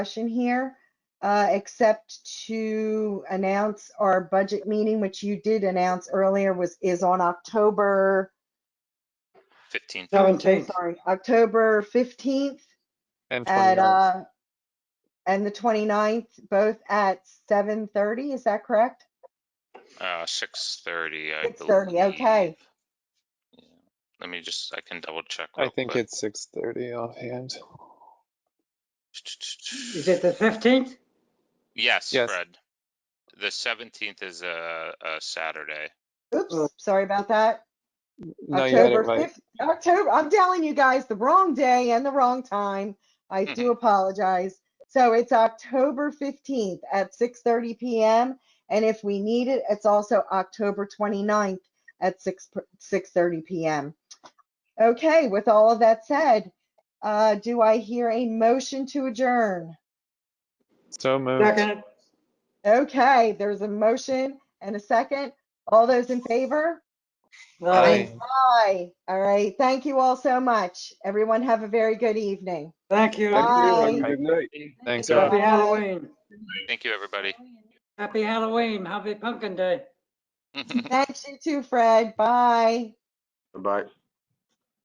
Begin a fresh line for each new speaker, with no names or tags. discussion here, uh, except to announce our budget meeting, which you did announce earlier was, is on October,
Fifteen.
I'm so
17th.
sorry, October 15th
And
at,
29th.
uh, and the 29th, both at 7:30, is that correct?
Uh, six thirty, I believe.
6:30, okay.
Yeah. Let me just, I can double check.
uh,
I
real
think
quick.
it's six thirty offhand.
Is it the 15th?
Yes,
Yes.
Fred. The seventeenth is a, a Saturday.
Oh.
Oops, sorry about that.
No, you had it
October
right.
5th, October, I'm telling you guys, the wrong day and the wrong time. I do apologize. So it's October 15th at 6:30 PM. And if we need it, it's also October 29th at 6, p- 6:30 PM. Okay, with all of that said, uh, do I hear a motion to adjourn?
So moved.
Second,
Okay, there's a motion and a second. All those in favor?
aye.
Aye.
Bye. All right. Thank you all so much. Everyone have a very good evening.
Thank you.
Bye.
Happy
Good night. Thanks,
Bye.
everyone.
Halloween.
Thank you, everybody.
Happy Halloween. Happy Pumpkin Day.
Thanks you too, Fred. Bye.
Bye.